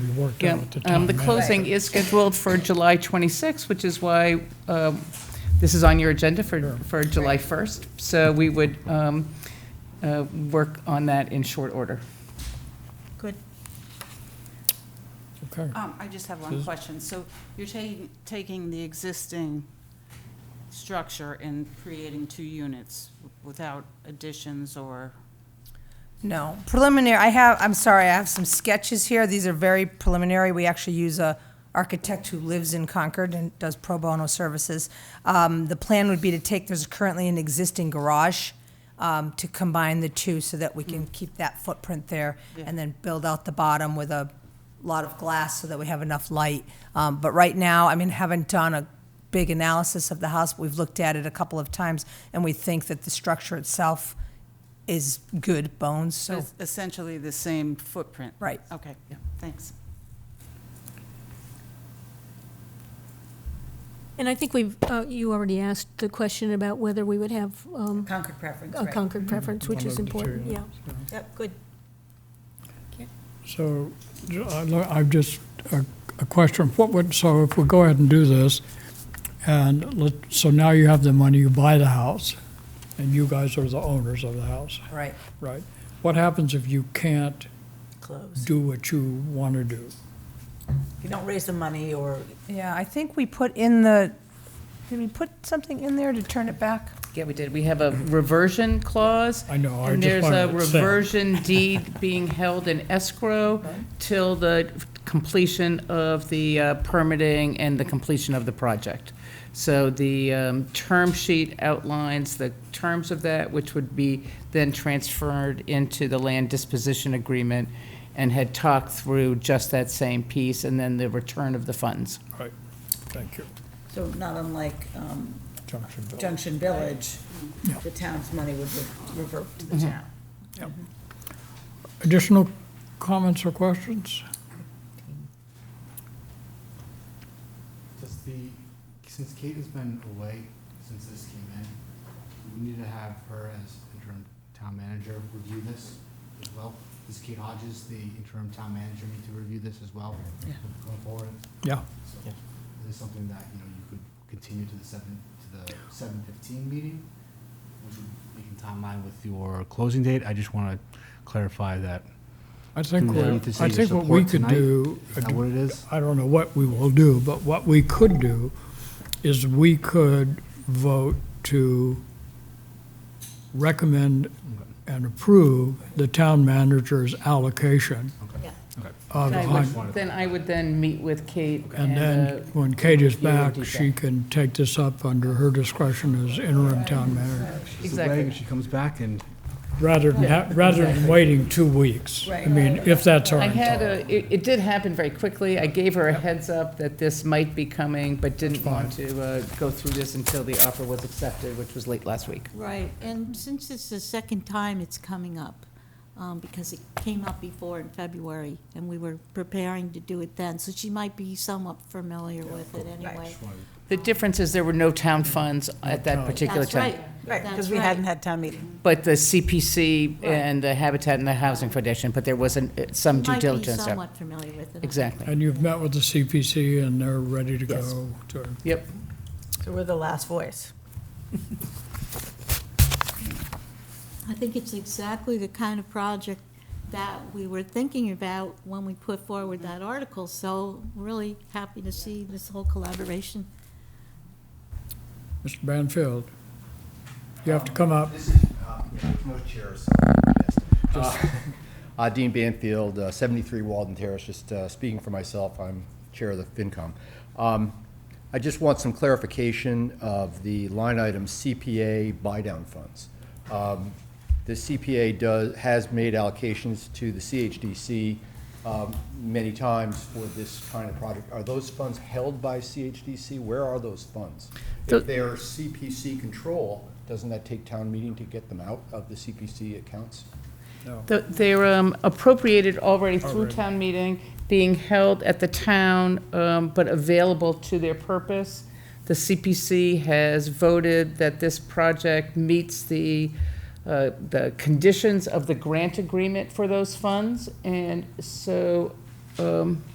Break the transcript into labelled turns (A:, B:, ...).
A: worked
B: Yeah,
A: out at the time.
B: um, the closing is scheduled for July 26th, which is why um, this is on your agenda for, for July 1st. So we would um, uh, work on that in short order.
C: Good.
A: Okay.
D: Um, I just have one
A: Susan?
D: question. So you're taking, taking the existing structure and creating two units without additions or,
C: No, preliminary, I have, I'm sorry, I have some sketches here. These are very preliminary. We actually use a architect who lives in Concord and does pro bono services. Um, the plan would be to take, there's currently an existing garage, um, to combine the two so that we can keep that footprint there and then build out the bottom with a lot of glass so that we have enough light. Um, but right now, I mean, haven't done a big analysis of the house, but we've looked at it a couple of times and we think that the structure itself is good bones,
D: so
C: so,
D: it's essentially the same footprint?
C: right.
D: Okay, thanks.
E: And I think we've, uh, you already asked the question about whether we would have um,
F: Concord preference,
E: a
F: right?
E: Concord preference, which
A: One
E: is
A: of the two,
E: important, yeah.
A: so.
F: Yep, good.
A: So ju- I lo- I've just, a a question, what would, so if we go ahead and do this, and let, so now you have the money, you buy the house, and you guys are the owners of the house,
C: Right.
A: right? What happens if you can't
F: Close.
A: do what you want to do?
F: If you don't raise the money or,
C: Yeah, I think we put in the, did we put something in there to turn it back?
B: Yeah, we did. We have a reversion clause.
A: I know, I
B: And
A: just
B: there's a
A: wanted to say.
B: reversion deed being held in escrow till the completion of the uh, permitting and the completion of the project. So the um, term sheet outlines the terms of that, which would be then transferred into the land disposition agreement and had talked through just that same piece and then the return of the funds.
A: Right, thank you,
F: so not unlike um,
A: Junction Bill.
F: Junction Village,
D: Mm-hmm.
A: Yeah.
F: the town's money would re- revert to the town.
A: Additional comments or questions?
G: Does the, since Kate has been away since this came in, we need to have her as interim town manager review this as well? Does Kate Hodges, the interim town manager, need to review this as well?
F: Yeah.
G: Going forward?
A: Yeah.
G: So, Is this something that, you know, you could continue to the seven, to the seven fifteen meeting? Which would be in timeline with your closing date? I just want to clarify that.
A: I think,
G: Do we Mm. need to
A: what-
G: say
A: I
G: your
A: think what we
G: support
A: could
G: tonight?
A: do. uh,
G: Is that what it is?
A: I don't know what we will do, but what we could do is we could vote to recommend and approve the town manager's allocation of,
B: I
A: hun-
B: would- Then I would then meet with Kate
A: and
B: and uh,
A: then when Kate is
B: you would
A: back,
B: do
A: she
B: that.
A: can take this up under her discretion as interim town manager,
B: Exactly.
G: She comes back and
A: rather than, ha- rather than waiting two weeks. I mean, if that's our
B: I
A: intent.
B: had a, it, it did happen very quickly. I gave her a heads up that this might be coming, but didn't want to uh, go through this until the offer was accepted, which was late last week.
H: Right, and since it's the second time it's coming up, um, because it came up before in February, and we were preparing to do it then, so she might be somewhat familiar with it anyway.
B: The difference is there were no town funds at that particular
H: That's
B: time.
H: right.
F: Right, because
H: That's
F: we
H: right.
F: hadn't had town meeting.
B: But the CPC and the Habitat and the Housing Foundation, but there was an- uh, some due diligence.
H: Might be
B: there.
H: somewhat familiar with it.
B: Exactly.
A: And you've met with the CPC and they're ready to
B: Yes.
A: go to.
B: Yep.
F: So we're the last voice.
H: I think it's exactly the kind of project that we were thinking about when we put forward that article, so really happy to see this whole collaboration.
A: Mr. Banfield, you have to come up.
I: This is, uh, no chair, so, yes. Uh, uh, Dean Banfield, uh, 73 Walden Terrace, just uh, speaking for myself, I'm Chair of the FinCom. Um, I just want some clarification of the line item CPA buy-down funds. Um, The CPA does, has made allocations to the CHDC um, many times for this kind of project. Are those funds held by CHDC? Where are those funds? If they are CPC control, doesn't that take town meeting to get them out of the CPC accounts?
B: Th- They're um, appropriated already through town meeting, being held at the town, um, but available to their purpose. The CPC has voted that this project meets the, uh, the conditions of the grant agreement for those funds, and so um,